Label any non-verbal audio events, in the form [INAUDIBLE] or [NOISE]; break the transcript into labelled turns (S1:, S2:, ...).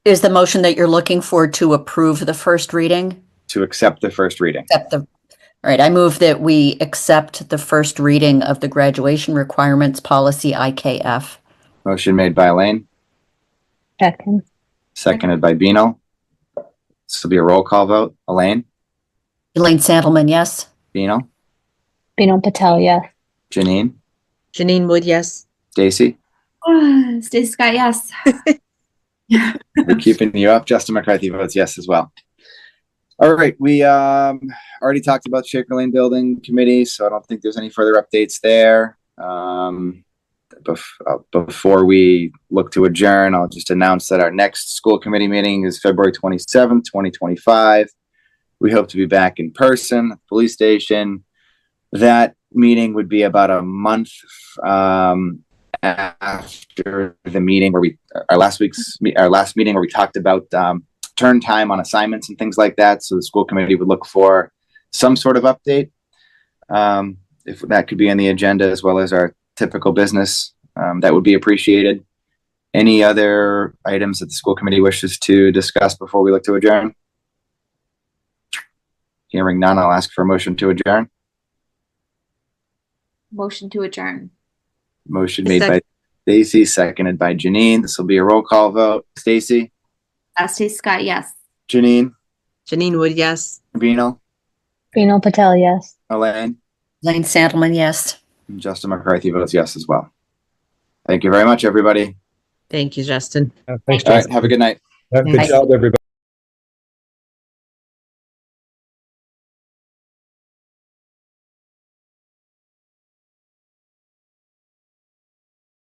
S1: Is the motion that you're looking for to approve the first reading?
S2: to accept the first reading.
S1: Accept the, all right, I move that we accept the first reading of the graduation requirements policy IKF.
S2: Motion made by Elaine,
S3: Second.
S2: seconded by Beano. This will be a roll call vote. Elaine,
S1: Elaine Sandelman, yes?
S2: Beano,
S3: Bino Patel, yes.
S2: Janine,
S4: Janine Wood, yes.
S5: [SIGHS]
S2: Stacy.
S5: Ah, Stacy Scott, yes.
S2: [LAUGHS] We're keeping you up. Justin McCarthy votes yes as well. All right, we um, already talked about Shaker Lane Building Committee, so I don't think there's any further updates there. Um, bef- uh, before we look to adjourn, I'll just announce that our next school committee meeting is February 27th, 2025. We hope to be back in person, at the police station. That meeting would be about a month um, after the meeting where we our last week's me- our last meeting where we talked about um, turn time on assignments and things like that. So the school committee would look for some sort of update. Um, if that could be on the agenda as well as our typical business, um, that would be appreciated. Any other items that the school committee wishes to discuss before we look to adjourn? Hearing none, I'll ask for a motion to adjourn.
S5: Motion to adjourn.
S2: Motion made by Stacy, seconded by Janine. This will be a roll call vote. Stacy,
S5: Uh, Stacy Scott, yes.
S2: Janine,
S4: Janine Wood, yes.
S2: Vino,
S3: Bino Patel, yes.
S2: Elaine.
S1: Elaine Sandelman, yes?
S2: And Justin McCarthy votes yes as well. Thank you very much, everybody.
S4: Thank you, Justin.
S6: Uh, Thanks,
S2: All
S6: John.
S2: right, have a good night.
S6: Have a Good
S1: Bye.
S6: job, everybody.